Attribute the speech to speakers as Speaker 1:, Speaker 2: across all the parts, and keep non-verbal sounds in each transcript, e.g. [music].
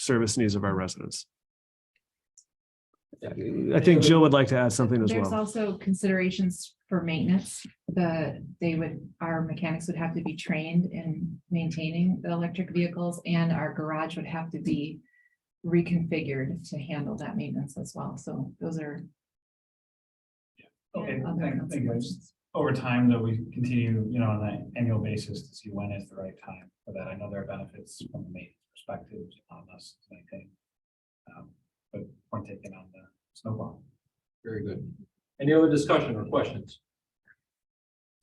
Speaker 1: service needs of our residents. I think Jill would like to add something as
Speaker 2: There's
Speaker 1: well.
Speaker 2: also considerations for maintenance, the, they would, our mechanics would have to be trained in maintaining the electric vehicles and our garage would have to be reconfigured to handle that maintenance as well, so those are.
Speaker 3: Okay,
Speaker 2: other
Speaker 3: thank- thank you.
Speaker 2: considerations.
Speaker 3: Over time, though, we continue, you know, on an annual basis to see when is the right time for that. I know there are benefits from the maintenance perspective on us, I think. Um, But point taken on the snowball.
Speaker 4: Very good. Any other discussion or questions?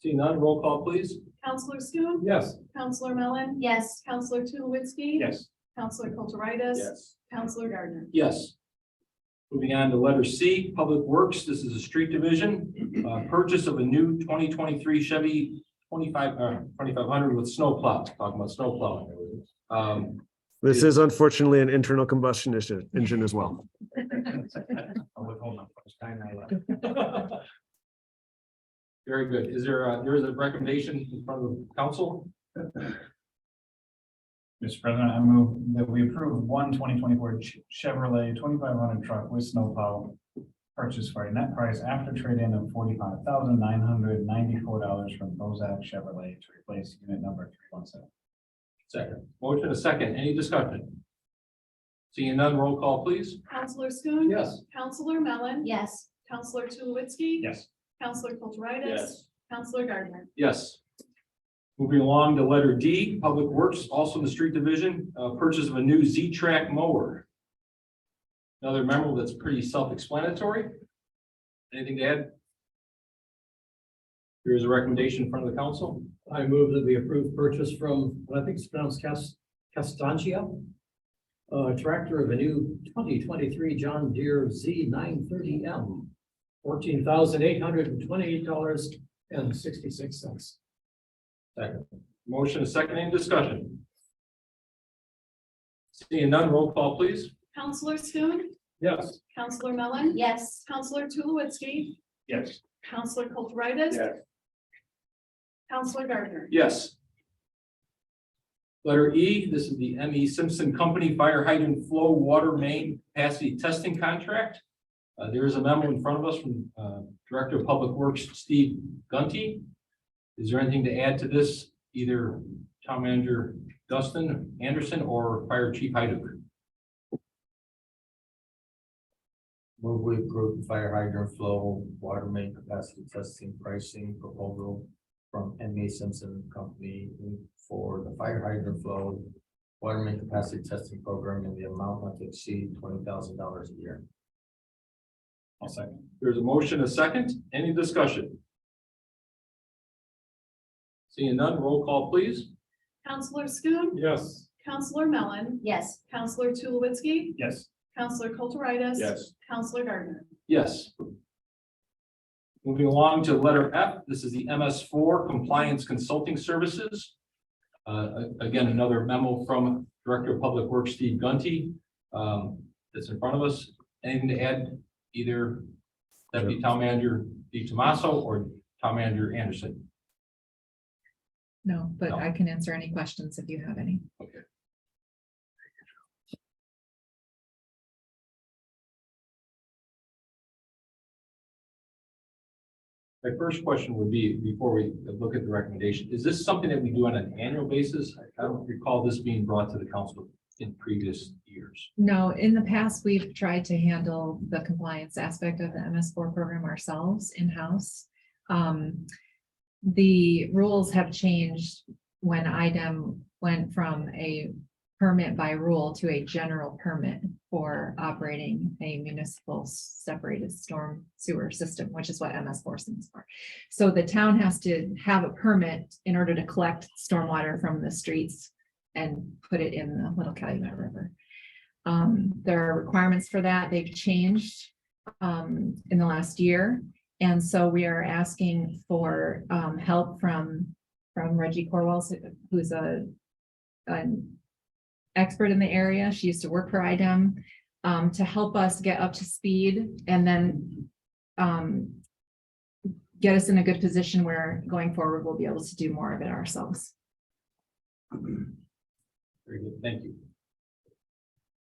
Speaker 4: Seeing none, roll call, please.
Speaker 5: Counselor Schoen.
Speaker 4: Yes.
Speaker 5: Counselor Mellon. Yes. Counselor Tulowitzki.
Speaker 3: Yes,
Speaker 5: Counselor Kulturitis. Counselor Gardner.
Speaker 4: Yes. Moving on to letter C, Public Works. This is a street division, uh, purchase of a new twenty twenty-three Chevy twenty-five, uh, twenty-five hundred with snowplow, talking about snowplow. Um, [laughs]
Speaker 1: This is unfortunately an internal combustion issue, engine as well.
Speaker 3: I'll withhold my first time I left.
Speaker 4: Very good. Is there, uh, there is a recommendation in front of the council?
Speaker 3: Mr. President, I move that we approve one 2024 Ch- Chevrolet twenty-five hundred truck with snowplow purchase for a net price after trade-in of forty-five thousand nine hundred ninety-four dollars from Bozak Chevrolet to replace unit number three one seven.
Speaker 4: Second. Motion a second. Any discussion? Seeing none, roll call, please.
Speaker 5: Counselor Schoen.
Speaker 4: Yes.
Speaker 5: Counselor Mellon.
Speaker 6: Yes,
Speaker 5: Counselor Tulowitzki.
Speaker 3: Yes.
Speaker 5: Counselor Kulturitis. Counselor Gardner.
Speaker 4: Yes. Moving along to letter D, Public Works, also in the street division, uh, purchase of a new Z-Track mower. Another memo that's pretty self-explanatory. Anything to add? There is a recommendation in front of the council.
Speaker 7: I move that we approve purchase from, what I think is pronounced Cas- Castangia. Uh, tractor of a new twenty twenty-three John Deere Z nine thirty M. Fourteen thousand eight hundred and twenty-eight dollars and sixty-six cents.
Speaker 4: Motion is second, any discussion? Seeing none, roll call, please.
Speaker 5: Counselor Schoen.
Speaker 4: Yes.
Speaker 5: Counselor Mellon.
Speaker 6: yes,
Speaker 5: Counselor Tulowitzki.
Speaker 3: Yes.
Speaker 5: Counselor Kulturitis.
Speaker 3: Yes.
Speaker 5: Counselor Gardner.
Speaker 4: Yes. Letter E, this is the M E Simpson Company Fire Hydrant Flow Water Main Capacity Testing Contract. Uh, there is a memo in front of us from, uh, Director of Public Works, Steve Gunty. Is there anything to add to this, either Town Manager Dustin Anderson or Fire Chief Hyduk?
Speaker 8: Move we approve fire hydrant flow, water main capacity testing pricing proposal from M A Simpson Company for the fire hydrant flow, water main capacity testing program in the amount not to exceed twenty thousand dollars a year.
Speaker 3: I'll second.
Speaker 4: There's a motion, a second, any discussion? Seeing none, roll call please.
Speaker 5: Counselor Schoen.
Speaker 4: Yes.
Speaker 5: Counselor Mellon.
Speaker 6: yes,
Speaker 5: Counselor Tulowitzki.
Speaker 3: Yes.
Speaker 5: Counselor Kulturitis.
Speaker 4: Yes.
Speaker 5: Counselor Gardner.
Speaker 4: Yes. Moving along to letter F, this is the MS four Compliance Consulting Services. Uh, a- again, another memo from Director of Public Works Steve Gunty, um, that's in front of us. Anything to add either Deputy Town Manager Di Tomaso or Town Manager Anderson?
Speaker 2: No, but
Speaker 4: No.
Speaker 2: I can answer any questions if you have any.
Speaker 4: My first question would be, before we look at the recommendation, is this something that we do on an annual basis? I- I don't recall this being brought to the council in previous years.
Speaker 2: No, in the past, we've tried to handle the compliance aspect of the MS four program ourselves in-house. Um, the rules have changed when IDEM went from a permit by rule to a general permit for operating a municipal separated storm sewer system, which is what MS four stands for. So the town has to have a permit in order to collect stormwater from the streets and put it in the Little Calumet River. Um, there are requirements for that. They've changed um, in the last year. And so we are asking for um, help from, from Reggie Corwell, who's a an expert in the area. She used to work for IDEM um, to help us get up to speed and then um, get us in a good position where going forward, we'll be able to do more of it ourselves.
Speaker 4: Very good, thank you.